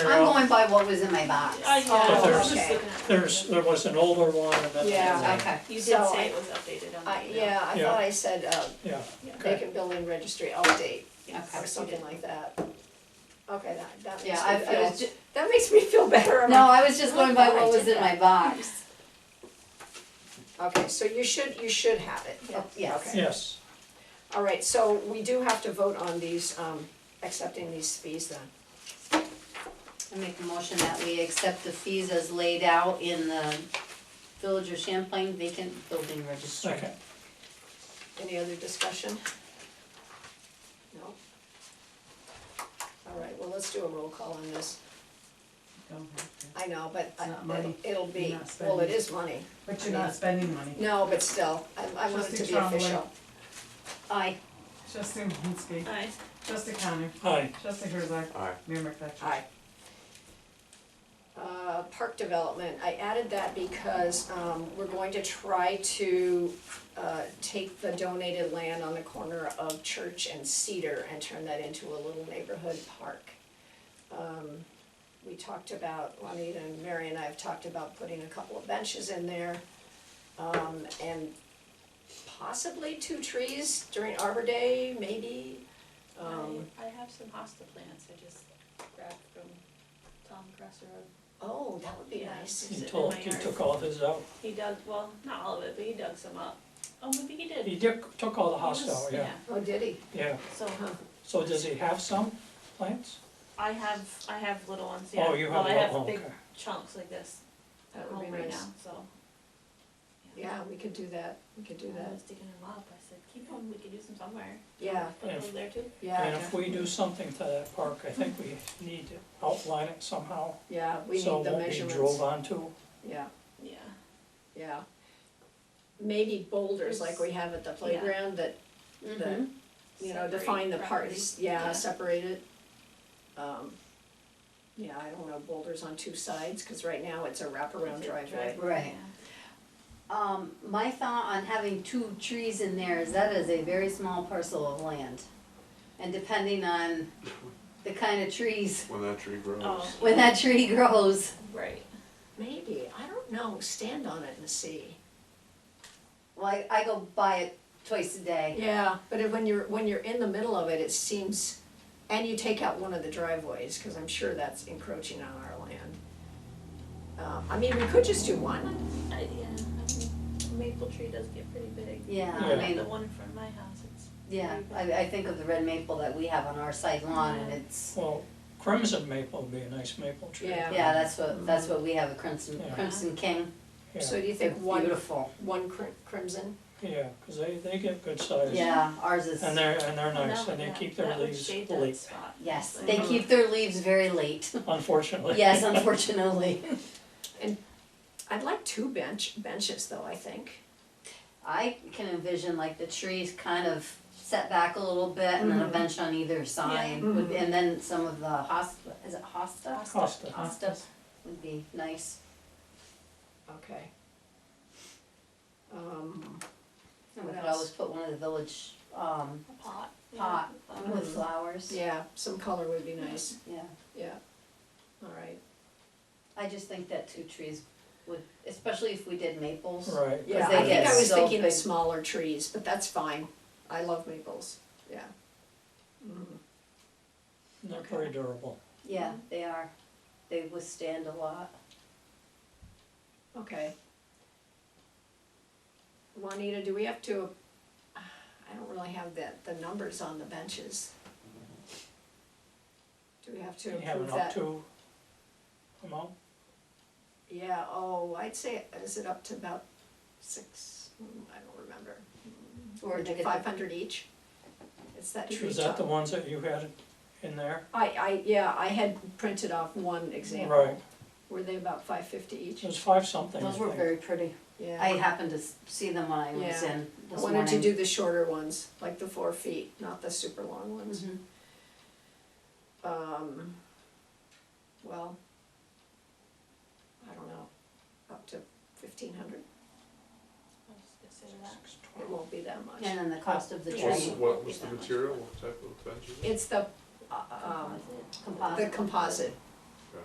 I'm going by what was in my box. I know, Oh, I was just okay. looking at. There's, there was an older one and then. Yeah. Okay. You did So say I- it was updated on I, the email. yeah, I Yeah. thought I said, uh, Yeah, okay. vacant building registry update, Yes, or you something did. like that. Okay, that, that Yeah, makes I, me I was feel, ju- that makes me feel better. I'm no, like, I was just going by what was in my box. Okay, so you should, you should have it. Oh, Yes. Okay. Yes, All right, so we do have to vote on these, um, accepting these fees then. I make a motion that we accept the fees as laid out in the Village of Champlain vacant building registry. second, Any other discussion? No? All right, well, let's do a roll call on this. Don't have to. I know, but I- It's not money. it'll- it'll be, You're not well, it spending. is money. But you're not spending money. No, but still, I, I want it to Trustee be Trombley. official. Aye. Trustee Malinsky. Aye. Trustee Connor. aye, Trustee Herzog. Aye. Mayor McFetrich. Aye. Uh, park development, I added that because, um, we're going to try to, uh, take the donated land on the corner of Church and Cedar and turn that into a little neighborhood park. Um, we talked about, Juanita and Mary and I have talked about putting a couple of benches in there, um, and possibly two trees during Arbor Day, maybe, I, um, I have some hosta plants I just grabbed from Tom Cresser. oh, that would be Yeah. nice. he Sit in told, my he yard. took all of his out, He dug, well, not all of it, but he dug some up. Oh, maybe he did. he took, took all the He was- house out, yeah, Oh, did he? yeah, So so does he have some plants? I have, I have little ones, yeah. Oh, you have, Well, I have oh, okay, big chunks like this at That would home be right nice. now, so. Yeah, we could do that, we could do I that, was digging them up, I said, keep them, we could use them somewhere. yeah, Put Yeah. them there too. and yeah, if we do something to that park, I think we need to outline it somehow, yeah, we need so the it won't be measurements. drove onto. Yeah, Yeah, yeah. Maybe boulders like we have at the playground that, that, Mhm. you know, Separate define the property. parts, Mm-hmm. yeah, Yeah. separate it. Um, yeah, I don't know, boulders on two sides, cause right now it's a wraparound It's a driveway. driveway, Right. yeah. Um, my thought on having two trees in there is that is a very small parcel of land. And depending on the kind of trees, When that tree grows. Oh. when that tree grows, Right, Maybe, I don't know, stand on it and see. well, I, I go by it twice a day. Yeah, but it- when you're, when you're in the middle of it, it seems, and you take out one of the driveways, cause I'm sure that's encroaching on our land. Uh, I mean, we could just do one, I, yeah, I mean, the maple tree does get pretty big. Yeah, Yeah. I mean, The one in front of my house, it's yeah, I, I think of the red maple that we have on our side lawn and it's, Well, crimson maple would be a nice maple tree. Yeah. yeah, that's what, that's what we have, a crimson, Yeah. crimson king. Yeah, so do you think one, Beautiful, one crim- crimson? yeah, 'cause they, they get good size. yeah, ours is, And they're, and they're Well, that nice, and would- they yeah, keep their that would leaves shade that late, spot. yes, Like- they keep their leaves very late, unfortunately. yes, unfortunately. I'd like two bench, benches though, I think. I can envision like the trees kind of set back a little bit and then a Mhm. bench on either side, Mhm. with- and then some of the hosta, is it hosta? Costa. Hosta would be nice, Okay. Um, and we What could else? always put one of the village, um, A pot. yeah, Um, Pot. a flower. with flowers, yeah. yeah, some color would be nice, yeah, alright, I just think that two trees would, especially if we did maples. Right. yeah, they I think get I was so thinking of big. smaller trees, but that's fine, I love maples, yeah. Mhm. They're very durable. Yeah, they are, they withstand a lot. Okay. Juanita, do we have to, I don't really have the, the numbers on the benches. Do we have to You have approve an that? up to amount? Yeah, oh, I'd say, is it up to about six, Mm, I don't remember. Or Is they it could- five hundred each? It's that tree Is that the top. ones that you had in there? I, I, yeah, I had printed off one example. Right, Were they about five fifty each? it was five something, I Those were think. very pretty, Yeah. I happened to s- see them when I was Yeah. in I this morning. wanted to do the shorter ones, like the four feet, not the super long ones. Mhm. um, well, I don't know, up to fifteen hundred, I'll just consider that. Six, it twelve. won't be that much. And then the cost of the Yeah. What's, tree, Also- what was the material, what type of benches? It's the, uh, um, Composite. composite. the composite,